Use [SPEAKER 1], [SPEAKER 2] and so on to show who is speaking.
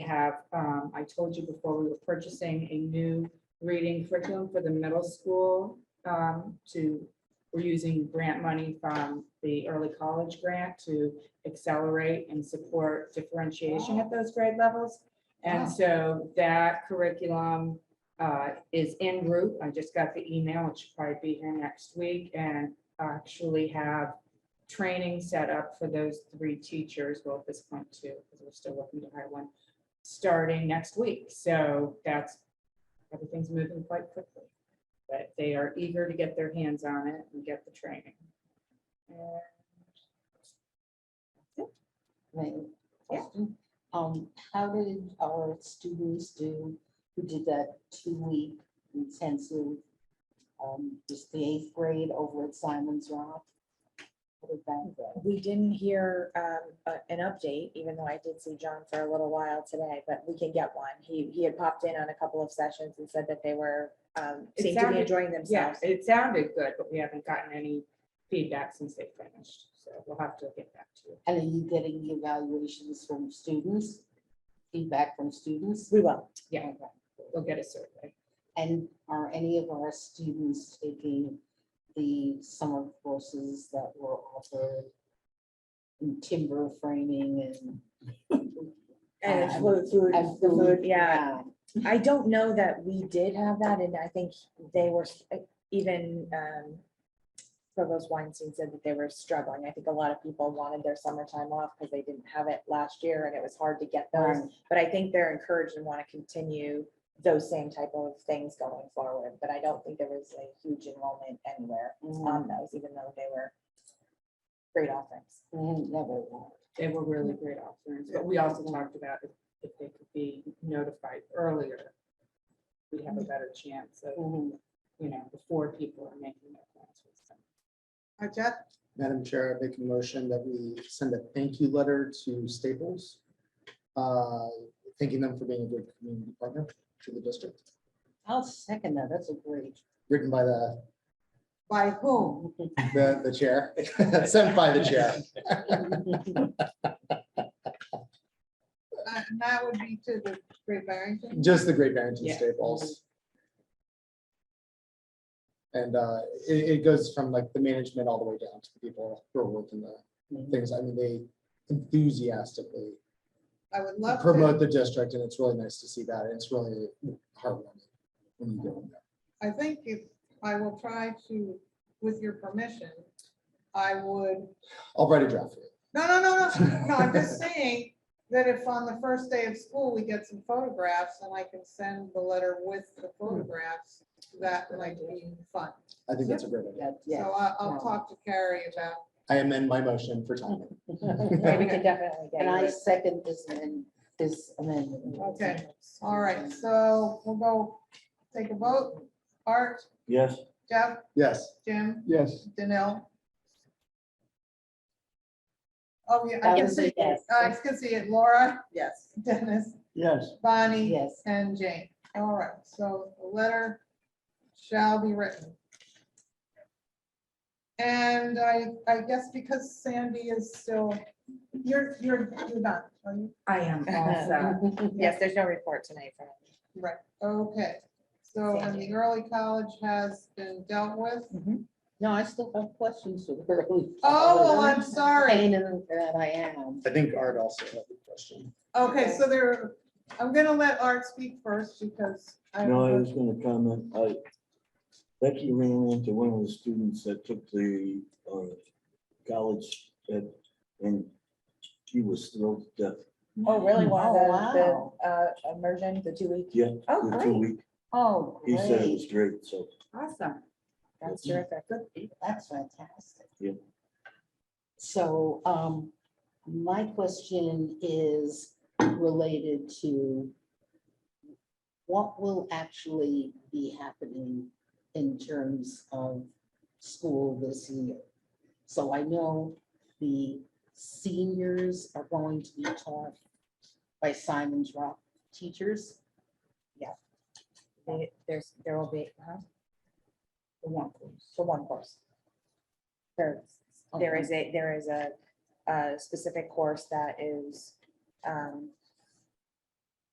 [SPEAKER 1] have, um, I told you before, we were purchasing a new reading curriculum for the middle school. um, to, we're using grant money from the early college grant to accelerate and support differentiation at those grade levels.
[SPEAKER 2] Wow.
[SPEAKER 1] And so that curriculum, uh, is en route. I just got the email. It should probably be here next week and actually have training set up for those three teachers, well, at this point two, because we're still looking to hire one, starting next week. So that's, everything's moving quite quickly. But they are eager to get their hands on it and get the training.
[SPEAKER 2] Right.
[SPEAKER 1] Yeah.
[SPEAKER 2] Question. Um, how did our students do who did that two-week intensive? Um, just the eighth grade over at Simon's Rock? How did that go?
[SPEAKER 3] We didn't hear um, a- an update, even though I did see John for a little while today, but we can get one. He, he had popped in on a couple of sessions and said that they were, um,
[SPEAKER 1] It
[SPEAKER 3] seemed to be
[SPEAKER 1] sounded-
[SPEAKER 3] enjoying
[SPEAKER 1] Yeah,
[SPEAKER 3] themselves.
[SPEAKER 1] it sounded good, but we haven't gotten any feedback since they finished. So we'll have to get back to you.
[SPEAKER 2] And are you getting evaluations from students? Feedback from students?
[SPEAKER 3] We will.
[SPEAKER 1] Yeah, we'll get a survey.
[SPEAKER 2] And are any of our students taking the summer courses that were offered? in Timber framing and.
[SPEAKER 3] And it's
[SPEAKER 2] Um,
[SPEAKER 3] food, food,
[SPEAKER 2] and
[SPEAKER 3] the food,
[SPEAKER 2] food,
[SPEAKER 3] yeah. I don't know that we did have that, and I think they were s- uh, even, um, Provost Weinstein said that they were struggling. I think a lot of people wanted their summertime off because they didn't have it last year and it was hard to get those.
[SPEAKER 2] Right.
[SPEAKER 3] But I think they're encouraged and want to continue those same type of things going forward, but I don't think there was a huge enrollment anywhere on those, even though they were great offerings.
[SPEAKER 2] Mm, Never. will.
[SPEAKER 1] They were really great offerings, but we also talked about if if they could be notified earlier, we'd have a better chance of,
[SPEAKER 2] Mhm.
[SPEAKER 1] you know, before people are making their plans. with them.
[SPEAKER 4] Hi, Jeff.
[SPEAKER 5] Madam Chair, I make a motion that we send a thank you letter to Staples, uh, thanking them for being a good community partner to the district,
[SPEAKER 2] I'll second that. That's a great.
[SPEAKER 5] written by the,
[SPEAKER 4] By whom?
[SPEAKER 5] the, the chair, sent by the chair.
[SPEAKER 4] Uh, And that would be to the Great Barrington.
[SPEAKER 5] Just the Great Barrington
[SPEAKER 1] Yeah.
[SPEAKER 5] Staples. And uh, it, it goes from like the management all the way down to the people who are working the
[SPEAKER 4] Mm-hmm.
[SPEAKER 5] things. I mean, they enthusiastically
[SPEAKER 4] I would love to,
[SPEAKER 5] promote the district and it's really nice to see that. and It's really heartwarming. when you do it.
[SPEAKER 4] I think if, I will try to, with your permission, I would,
[SPEAKER 5] I'll write a draft for you.
[SPEAKER 4] no, no, no, no, no, I'm just saying that if on the first day of school, we get some photographs and I can send the letter with the photographs, that might be fun.
[SPEAKER 5] I think that's a great idea.
[SPEAKER 2] Yeah, yeah.
[SPEAKER 4] So I- I'll
[SPEAKER 2] no.
[SPEAKER 4] talk to Carrie about,
[SPEAKER 5] I amend my motion for timing.
[SPEAKER 3] Yeah, we can definitely get.
[SPEAKER 2] And I
[SPEAKER 3] you a-
[SPEAKER 2] second this and this amendment.
[SPEAKER 4] Okay. all right, so we'll go take a vote. Art,
[SPEAKER 6] Yes.
[SPEAKER 4] Jeff,
[SPEAKER 5] Yes.
[SPEAKER 4] Jim,
[SPEAKER 5] Yes.
[SPEAKER 4] Danil. Oh, yeah,
[SPEAKER 2] That
[SPEAKER 4] I can
[SPEAKER 2] was a
[SPEAKER 4] see,
[SPEAKER 2] yes.
[SPEAKER 4] I can see it. Uh, Laura. Yes. Dennis,
[SPEAKER 6] Yes.
[SPEAKER 4] Bonnie.
[SPEAKER 2] Yes.
[SPEAKER 4] And Jane. All right, so the letter shall be written. And I, I guess because Sandy is still, you're, you're, you're done, are you?
[SPEAKER 1] I am also,
[SPEAKER 2] uh,
[SPEAKER 3] Yes, there's no report tonight from.
[SPEAKER 4] Right, okay. So, and the early college has been dealt with.
[SPEAKER 2] No, I still have questions. for the early
[SPEAKER 4] Oh, well,
[SPEAKER 2] college.
[SPEAKER 4] I'm sorry.
[SPEAKER 2] Pain in that I am.
[SPEAKER 5] I think Art also had a question.
[SPEAKER 4] Okay, so there, I'm gonna let Art speak first because I.
[SPEAKER 6] No, I was gonna comment, I, Becky ran into one of the students that took the, uh, college, that, and he was thrilled to death.
[SPEAKER 3] Oh, really? Wow,
[SPEAKER 2] Oh, wow.
[SPEAKER 3] the, uh, immersion, the two week?
[SPEAKER 6] Yeah,
[SPEAKER 3] Oh,
[SPEAKER 6] the two
[SPEAKER 3] great.
[SPEAKER 6] week,
[SPEAKER 2] Oh,
[SPEAKER 6] he said it was
[SPEAKER 2] great.
[SPEAKER 6] great, so.
[SPEAKER 1] awesome.
[SPEAKER 3] That's terrific.
[SPEAKER 2] That's fantastic.
[SPEAKER 6] Yeah.
[SPEAKER 2] So um, my question is related to what will actually be happening in terms of school this year? So I know the seniors are going to be taught by Simon's Rock teachers.
[SPEAKER 3] They- There's, there will be, huh?
[SPEAKER 2] The one course.
[SPEAKER 3] for one course. There, there is a, there is a, a specific course that is um,